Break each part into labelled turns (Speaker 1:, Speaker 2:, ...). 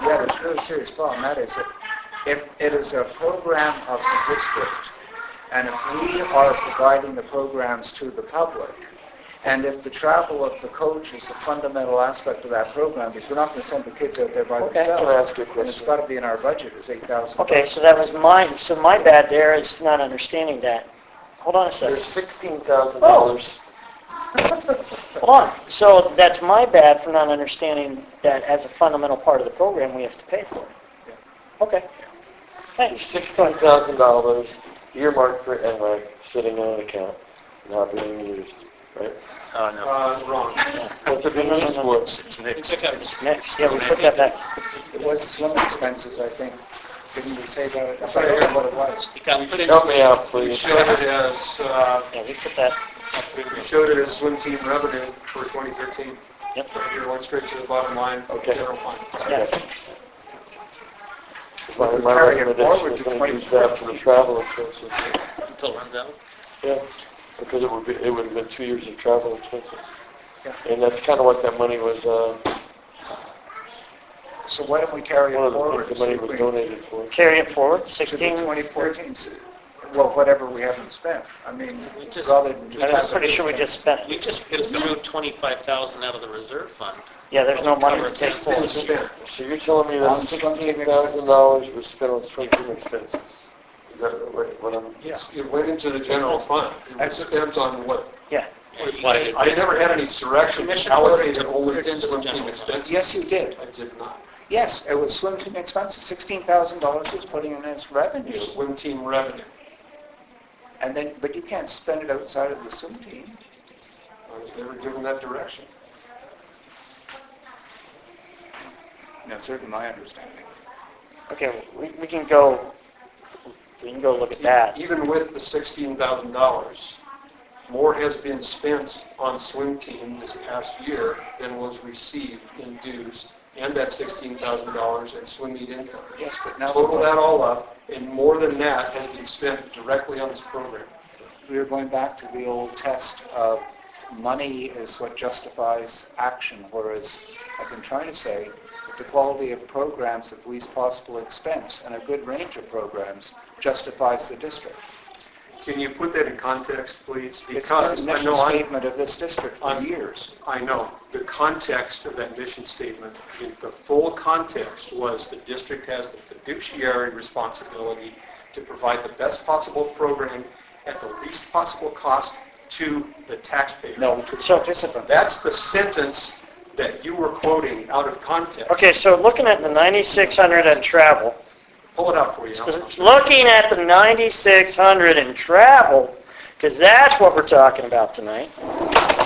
Speaker 1: yeah, there's a really serious flaw, and that is that if it is a program of the district, and if we are providing the programs to the public, and if the travel of the coach is a fundamental aspect of that program, because we're not going to send the kids out there by
Speaker 2: Okay.
Speaker 1: themselves.
Speaker 3: Can I ask you a
Speaker 1: And it's
Speaker 3: question?
Speaker 1: got to be in our budget, it's eight thousand.
Speaker 2: Okay, so that was mine, so my bad there is not understanding that. Hold on a second.
Speaker 3: There's sixteen thousand dollars.
Speaker 2: Hold on. So that's my bad for not understanding that as a fundamental part of the program, we have to pay for it. Okay.
Speaker 3: There's
Speaker 2: Thanks.
Speaker 3: sixteen thousand dollars earmarked for NREC sitting on an account, not being used, right?
Speaker 4: Oh, no.
Speaker 5: Uh, wrong.
Speaker 3: What's it being used for?
Speaker 4: It's, it's mixed.
Speaker 5: Except it's-
Speaker 2: Next, yeah, we put that back.
Speaker 1: It was swim expenses, I think. Didn't we say that? I don't know what it was.
Speaker 5: It got put in,
Speaker 3: Help me out,
Speaker 5: we
Speaker 3: please.
Speaker 5: showed it as, uh,
Speaker 2: Yeah, we put that,
Speaker 5: we showed it as swim team revenue for 2013.
Speaker 2: yep,
Speaker 5: So Here, went straight to the bottom line,
Speaker 3: Okay.
Speaker 5: general fund.
Speaker 2: yeah.
Speaker 3: My my
Speaker 1: Carry it
Speaker 3: recommendation
Speaker 1: forward
Speaker 3: is
Speaker 1: to
Speaker 3: going to be that for the travel expenses.
Speaker 4: Until it runs out.
Speaker 3: Yeah, because it would be, it would have been two years of travel expenses.
Speaker 1: Yeah.
Speaker 3: And that's kind of what that money was, uh,
Speaker 1: So why don't we carry it
Speaker 3: one of the
Speaker 1: forward?
Speaker 3: things the money was donated for.
Speaker 2: Carry it forward,
Speaker 1: To the
Speaker 2: 16.
Speaker 1: 2014, well, whatever we haven't spent. I mean,
Speaker 4: We just-
Speaker 1: rather than just...
Speaker 2: I'm pretty sure we just spent
Speaker 4: We
Speaker 2: it.
Speaker 4: just threw 25,000 out of the reserve fund.
Speaker 2: Yeah, there's no money to
Speaker 4: Covered
Speaker 2: take
Speaker 4: expenses.
Speaker 2: forward.
Speaker 3: So you're telling me
Speaker 1: On
Speaker 3: that
Speaker 1: swim team
Speaker 3: sixteen thousand dollars was spent on swim team expenses? Is that what what I'm,
Speaker 1: Yeah.
Speaker 5: It went into the general fund. It was spent on what,
Speaker 2: Yeah.
Speaker 5: I never had any direction allocated only
Speaker 4: Put it
Speaker 5: to
Speaker 4: into the
Speaker 5: swim team
Speaker 4: general fund.
Speaker 5: expenses.
Speaker 1: Yes, you did.
Speaker 5: I did not.
Speaker 1: Yes, it was swim team expenses, $16,000 was putting in as revenue.
Speaker 5: Swim team revenue.
Speaker 1: And then, but you can't spend it outside of the swim team.
Speaker 5: I was never given that direction.
Speaker 1: No, certainly my understanding.
Speaker 2: Okay, we, we can go, we can go look at that.
Speaker 5: Even with the $16,000, more has been spent on swim team this past year than was received in dues and that $16,000 in swim meet income.
Speaker 1: Yes, but now
Speaker 5: Total that all up, and more than that has been spent directly on this program.
Speaker 1: we are going back to the old test of money is what justifies action, whereas I've been trying to say that the quality of programs at least possible expense and a good range of programs justifies the district.
Speaker 5: Can you put that in context, please?
Speaker 1: It's been a
Speaker 5: Because I
Speaker 1: mission
Speaker 5: know I'm
Speaker 1: statement of this district for
Speaker 5: I'm-
Speaker 1: years.
Speaker 5: I know. The context of that mission statement, the- the full context was the district has the fiduciary responsibility to provide the best possible program at the least possible cost to the taxpayer.
Speaker 1: No, to
Speaker 2: So-
Speaker 1: participants.
Speaker 5: That's the sentence that you were quoting out of context.
Speaker 2: Okay, so looking at the 9,600 and travel,
Speaker 5: Pull it up for you.
Speaker 2: looking at the 9,600 and travel, because that's what we're talking about tonight.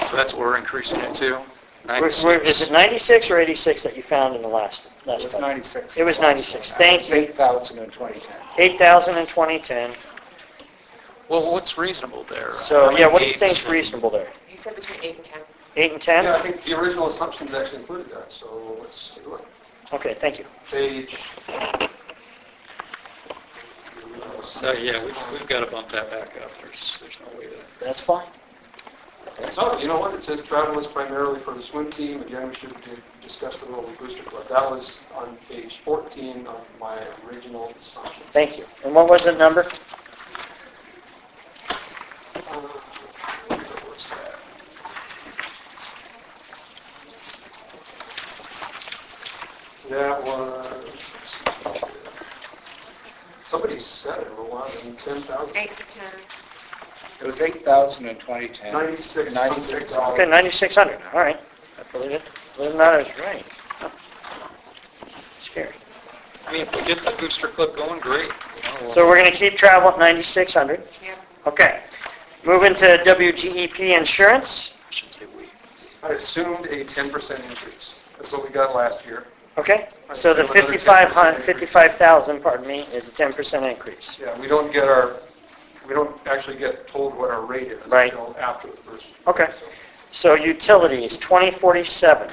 Speaker 4: So that's what we're increasing it to?
Speaker 2: We're- we're- Is it 96 or 86 that you found in the last?
Speaker 1: It was 96.
Speaker 2: It was 96, thank you.
Speaker 1: 8,000 in 2010.
Speaker 2: 8,000 in 2010.
Speaker 4: Well, what's reasonable there?
Speaker 2: So, yeah, what do you think's reasonable there?
Speaker 6: He said between eight and 10.
Speaker 2: 8 and
Speaker 5: Yeah, I
Speaker 2: 10?
Speaker 5: think the original assumptions actually included that, so let's take a look.
Speaker 2: Okay, thank you.
Speaker 5: Page,
Speaker 4: So, yeah, we- we've got to bump that back up. There's, there's no way to...
Speaker 2: That's fine.
Speaker 5: So, you know what, it says travel is primarily for the swim team, again, we should do- discuss the role of Booster Club. That was on page 14 of my original assumption.
Speaker 2: Thank you. And what was the number?
Speaker 5: Uh, what's that? That was, somebody said it, a lot, and 10,000,
Speaker 6: Eight to 10.
Speaker 1: It was 8,000 in 2010.
Speaker 5: 96.
Speaker 1: 96.
Speaker 2: Okay, 9,600, all right. I believe it. Believe it or not, I was right. Huh. Scary.
Speaker 4: I mean, if we get the booster clip going, great. you know, we'll-
Speaker 2: So we're going to keep travel at 9,600.
Speaker 6: Yep.
Speaker 2: Okay. Move into WGEP insurance.
Speaker 4: I should say we.
Speaker 5: I assumed a 10% increase, that's what we got last year.
Speaker 2: Okay? So the
Speaker 5: Another 10%
Speaker 2: 55,000,
Speaker 5: increase.
Speaker 2: 55,000, pardon me, is a 10% increase.
Speaker 5: Yeah, we don't get our, we don't actually get told what our rate is
Speaker 2: Right.
Speaker 5: until after the first.
Speaker 2: Okay. So utilities, 2047.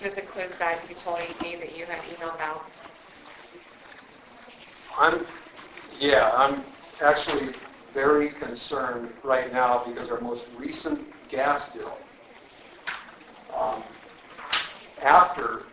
Speaker 6: This includes that utility fee that you had emailed out.
Speaker 5: I'm, yeah, I'm actually very concerned right now because our most recent gas bill um, after